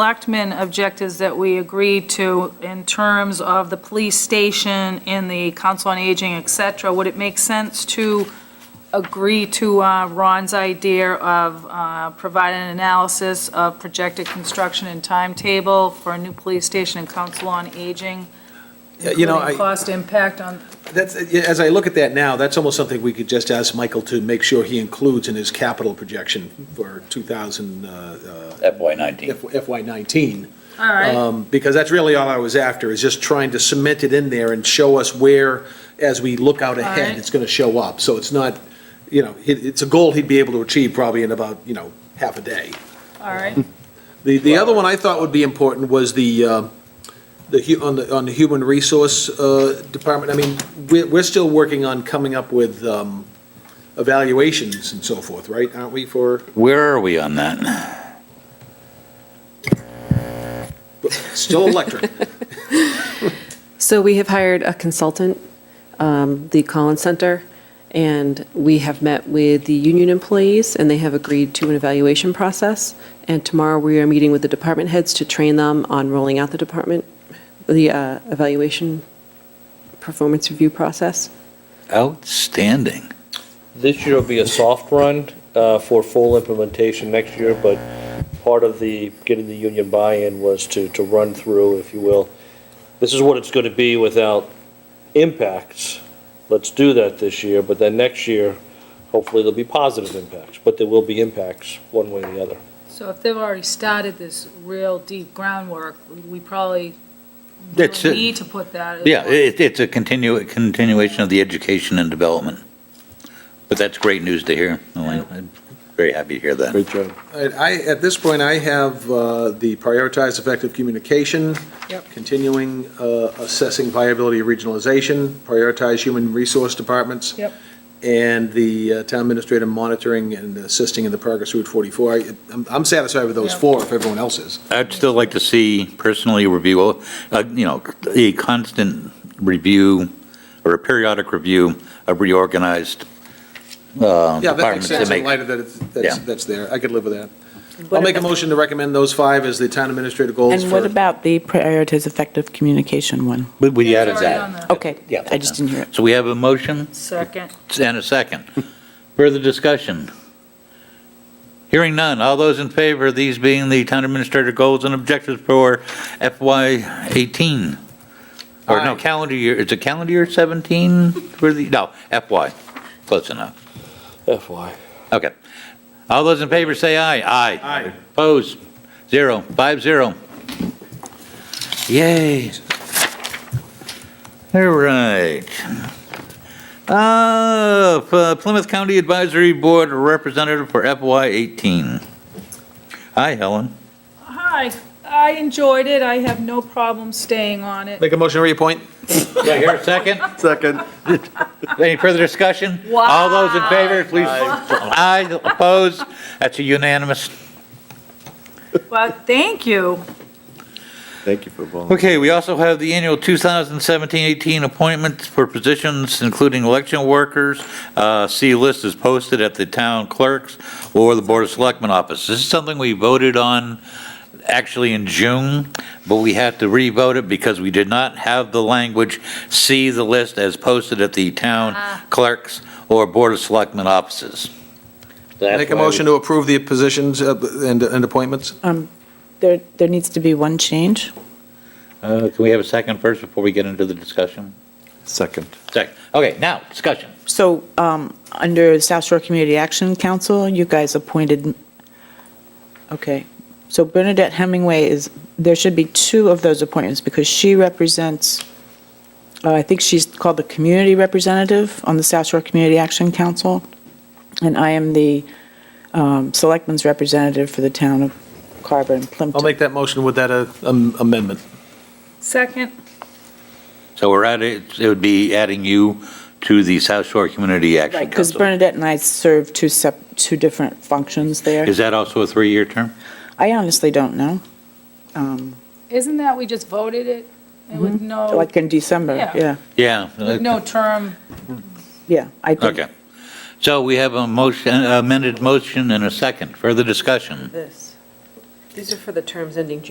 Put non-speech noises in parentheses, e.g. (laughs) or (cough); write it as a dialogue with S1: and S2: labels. S1: selectmen objectives that we agreed to in terms of the police station and the council on aging, et cetera, would it make sense to agree to uh, Ron's idea of uh, providing an analysis of projected construction and timetable for a new police station and council on aging?
S2: Yeah, You know,
S1: including
S2: I,
S1: Cost impact on,
S2: that's, as I look at that now, that's almost something we could just ask Michael to make sure he includes in his capital projection for 2000, uh, uh,
S3: FY nineteen.
S2: FY '19.
S1: all right,
S3: Uh,
S2: Um, Because that's really all I was after, is just trying to cement it in there and show us where, as we look out ahead,
S1: right.
S2: it's going to show up. So it's not, you know, it, it's a goal he'd be able to achieve probably in about, you know, half a day.
S1: all right.
S2: The, the other one I thought would be important was the, uh, the, hu- on the, on the human resource uh, department. I mean, we're, we're still working on coming up with um, evaluations and so forth, right? Aren't we for,
S3: Where are we on that?
S2: still electric?
S4: So we have hired a consultant, um, the Collins Center, and we have met with the union employees, and they have agreed to an evaluation process. And tomorrow, we are meeting with the department heads to train them on rolling out the department, the uh, evaluation performance review process.
S3: Outstanding.
S5: This year will be a soft run uh, for full implementation next year, but part of the, getting the union buy-in was to, to run through, if you will, this is what it's going to be without impacts. Let's do that this year, but then next year, hopefully there'll be positive impacts, but there will be impacts one way or the other.
S1: So if they've already started this real deep groundwork, we probably
S3: That's
S1: don't
S3: it.
S1: need to put that. as
S3: Yeah,
S1: well.
S3: it, it's a continu, continuation of the education and development. But that's great news to hear, Elaine. I'm very happy to hear that.
S5: job.
S2: Alright, I, at this point, I have uh, the prioritize effective communication,
S1: Yep.
S2: continuing uh, assessing viability of regionalization, prioritize human resource departments.
S1: Yep.
S2: And the uh, town administrator monitoring and assisting in the progress Route 44. I- I'm I'm satisfied with those
S1: Yep.
S2: four, if everyone else is.
S3: I'd still like to see personally review, uh, you know, a constant review or a periodic review of reorganized, uh,
S2: Yeah, that makes
S3: departments to
S2: sense in
S3: make.
S2: light of that, it's- that's,
S3: Yeah.
S2: that's there. I could live with that. I'll make a motion to recommend those five as the town administrator goals
S6: And what
S2: for.
S6: about the prioritize effective communication one?
S3: But we added
S1: It's already on
S3: that.
S1: there.
S6: Okay.
S3: Yeah.
S6: I just didn't hear it.
S3: So we have a motion?
S1: Second.
S3: and a second. (laughs) Further discussion? Hearing none. All those in favor, of these being the town administrator goals and objectives for FY '18? Or no,
S2: Aye.
S3: calendar year, is it calendar year '17 for the, no, FY, close enough.
S5: FY.
S3: Okay. All those in favor say aye. Aye.
S2: Aye.
S3: Opposed? Zero. Five zero. Yay. All right. Uh, P- Plymouth County Advisory Board Representative for FY eighteen. Hi, Helen.
S1: Hi, I enjoyed it. I have no problem staying on it.
S2: Make a motion to reappoint?
S3: Do I hear a second?
S7: Second.
S3: Any further discussion? All those in favor, please. Aye, opposed? That's a unanimous.
S1: Well, thank you.
S7: Thank you for volunteering.
S3: Okay, we also have the annual 2017-18 appointments for positions, including election workers. Uh, See list is posted at the town clerk's or the Board of Selectmen office. This is something we voted on actually in June, but we had to re-vote it because we did not have the language, see the list as posted at the town clerk's or Board of Selectmen offices.
S2: Make a motion to approve the positions uh, and and appointments?
S6: There, there needs to be one change.
S3: Uh, Can we have a second first before we get into the discussion?
S7: Second.
S3: Second. Okay, now, discussion.
S6: So, um, under South Shore Community Action Council, you guys appointed, okay. So Bernadette Hemingway is, there should be two of those appointments because she represents, uh, I think she's called the community representative on the South Shore Community Action Council. And I am the, um, selectman's representative for the town of Carver and Plimpton.
S2: I'll make that motion with that uh, um, amendment.
S1: Second,
S3: So we're at it, it would be adding you to the South Shore Community Action
S6: Right, because
S3: Council.
S6: Bernadette and I serve two sep, two different functions there.
S3: Is that also a three-year term?
S6: I honestly don't know. Um,
S1: isn't that we just voted it and with no,
S6: Like in December,
S1: Yeah.
S6: yeah,
S3: Yeah.
S1: with no term?
S6: yeah. I think
S3: Okay. So we have a motion, amended motion and a second. Further discussion?
S6: This.
S4: These are for the terms ending June